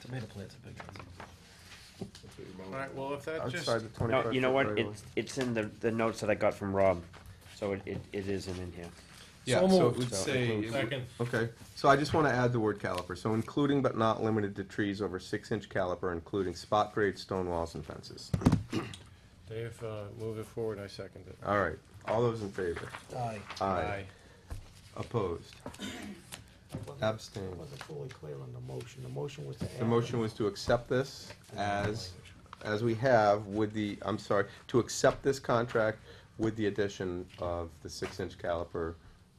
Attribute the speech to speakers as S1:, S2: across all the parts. S1: Tomato plants are big ones.
S2: Alright, well, if that just,
S3: Outside the twenty-five
S4: No,
S3: foot.
S4: you know what,
S3: right of way.
S4: it's, it's in the, the notes that I got from Rob, so it, it, it isn't in here.
S5: Yeah,
S1: So
S5: so it
S1: moved.
S5: would
S3: So
S5: say, it
S3: moved.
S5: would-
S1: Second.
S3: Okay, so I just wanna add the word caliper, so including but not limited to trees over six-inch caliper, including spot grade stone walls and fences.
S2: Dave, uh, move it forward, I second it.
S3: All right, all those in favor?
S1: Aye.
S3: Aye. Opposed? Abstained.
S6: Wasn't fully clear on the motion. The motion was to add.
S3: The motion was to accept this as, as we have with the, I'm sorry, to accept this contract with the addition of the six-inch caliper,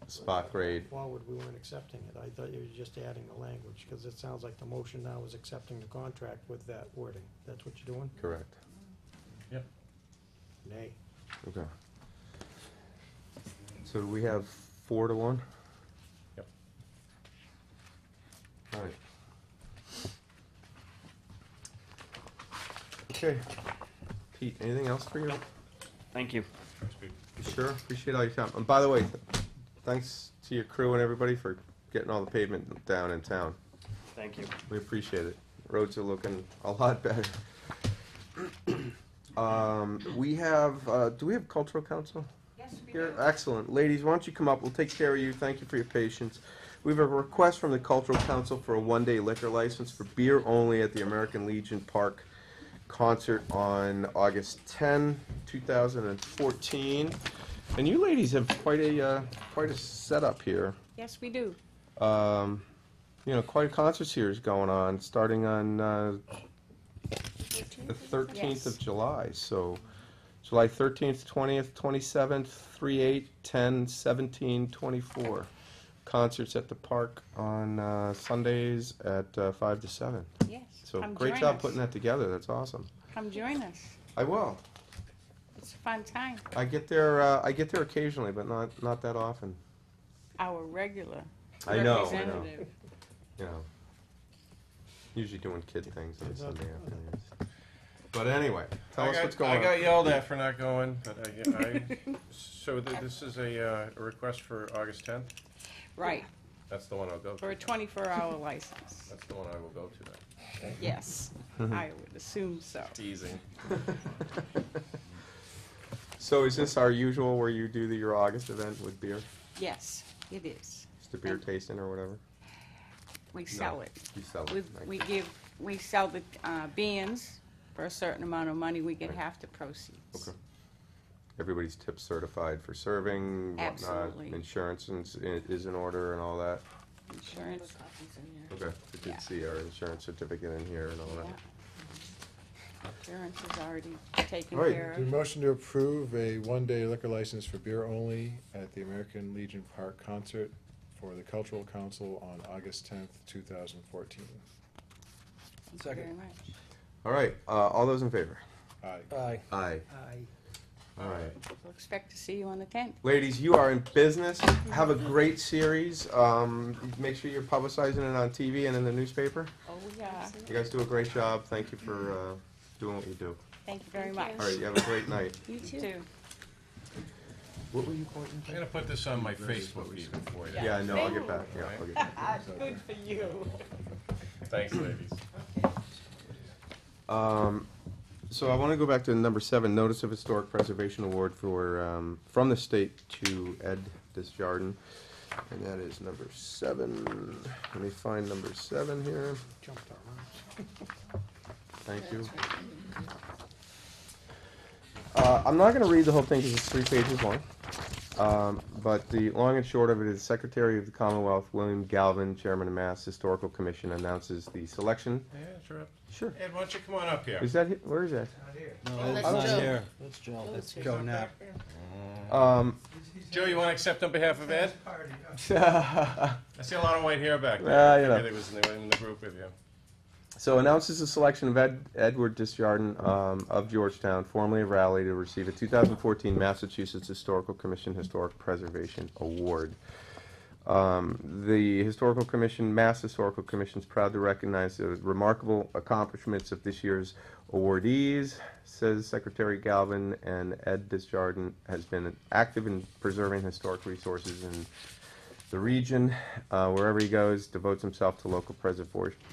S3: spot grade.
S6: Forward, we weren't accepting it. I thought you were just adding the language, because it sounds like the motion now is accepting the contract with that wording. That's what you're doing?
S3: Correct.
S6: Nay.
S3: Okay. So do we have four to one?
S2: Yep.
S3: All right. Okay. Pete, anything else for you?
S4: Thank you.
S3: Sure, appreciate all your time. And by the way, th- thanks to your crew and everybody for getting all the pavement down in town.
S4: Thank you.
S3: We appreciate it. Roads are looking a lot better. Um, we have, uh, do we have cultural council?
S7: Yes, we
S3: Here, uh,
S7: do.
S3: excellent. Ladies, why don't you come up? We'll take care of you. Thank you for your patience. We have a request from the Cultural Council for a one-day liquor license for beer only at the American Legion Park concert on August 10, 2014. And you ladies have quite a, uh, quite a setup here.
S7: Yes, we do.
S3: Um, you know, quite a concert series going on, starting on, uh, the thirteenth of
S7: Yes.
S3: July, so July thirteenth, twentieth, twenty-seventh, three, eight, ten, seventeen, twenty-four. Concerts at the park on uh, Sundays at uh, five to seven.
S7: Yes.
S3: So
S7: Come
S3: great
S7: join
S3: job
S7: us.
S3: putting that together. That's awesome.
S7: Come join us.
S3: I will.
S7: It's a fun time.
S3: I get there. Uh, I get there occasionally, but not not that often.
S7: Our regular
S3: I know. I know.
S7: representative.
S3: You know. Usually doing kid things on
S6: Kids out
S3: Sunday
S6: there.
S3: afternoons. But anyway, tell
S2: I
S3: us
S2: got-
S3: what's going
S2: I
S3: on.
S2: got yelled at for not going, but I, I, so th- this is a, uh, a request for August tenth?
S7: Right,
S2: That's the one I'll go
S7: for
S2: to.
S7: a 24-hour license.
S2: That's the one I will go to then.
S7: Yes,
S3: Mm-hmm.
S7: I would assume so.
S2: Teasing.
S3: So is this our usual where you do the, your August event with beer?
S7: Yes, it is.
S3: Just a beer tasting or whatever?
S7: We sell it.
S3: You sell
S7: We,
S3: it.
S7: we
S3: like-
S7: give, we sell the uh, bands for a certain amount of money. We get half the proceeds.
S3: Okay. Everybody's tip certified for serving, whatnot.
S7: Absolutely.
S3: Insurance is, is in order and all that.
S7: Insurance.
S3: Okay. I
S7: Yeah.
S3: did see our insurance certificate in here and all
S7: yeah.
S3: that.
S7: Insurance is already taken
S3: Right.
S7: care
S5: Do
S7: of.
S5: a motion to approve a one-day liquor license for beer only at the American Legion Park concert for the Cultural Council on August tenth, two thousand fourteen.
S7: Thank you
S1: Second.
S7: very much.
S3: All right, uh, all those in favor?
S5: Aye.
S1: Aye.
S3: Aye.
S6: Aye.
S3: All right.
S7: We'll expect to see you on the 10th.
S3: Ladies, you are in business. Have a great series. Um, make sure you're publicizing it on TV and in the newspaper.
S7: Oh, yeah.
S3: You guys do a great job. Thank you for, uh, doing what you do.
S7: Thank you very much.
S8: Thank
S3: All right, you have a great night.
S7: You too.
S3: What were you pointing
S2: I'm gonna put this on my Facebook feed for you.
S3: Yeah, I know, I'll get back, yeah, I'll get back.
S7: Good for you.
S2: Thanks, ladies.
S3: Um, so I wanna go back to number seven, notice of historic preservation award for, um, from the state to Ed Disjardin. And that is number seven, let me find number seven here,
S6: Jumped around.
S3: thank you. Uh, I'm not gonna read the whole thing, cause it's three pages long. Um, but the long and short of it is Secretary of the Commonwealth, William Galvin, Chairman of Mass Historical Commission announces the selection.
S2: Yeah, sure.
S3: Sure.
S2: Ed, why don't you come on up here?
S3: Is that, hi- where is that?
S1: No, that's
S8: that's
S1: not
S8: Joe.
S1: here. That's Joe. That's
S2: He's
S1: Joe
S2: up
S1: now.
S2: there.
S3: Um,
S2: Joe, you wanna accept on behalf of Ed? I see a lot of white hair back
S3: Ah,
S2: there.
S3: you know.
S2: I really was in the, in the group with you.
S3: So announces the selection of Ed, Edward Disjardin um, of Georgetown, formerly of Raleigh, to receive a 2014 Massachusetts Historical Commission Historic Preservation Award. Um, the Historical Commission, Mass Historical Commission, is proud to recognize the remarkable accomplishments of this year's awardees, says Secretary Galvin, and Ed Disjardin has been active in preserving historic resources in the region. Uh, wherever he goes, devotes himself to local preservation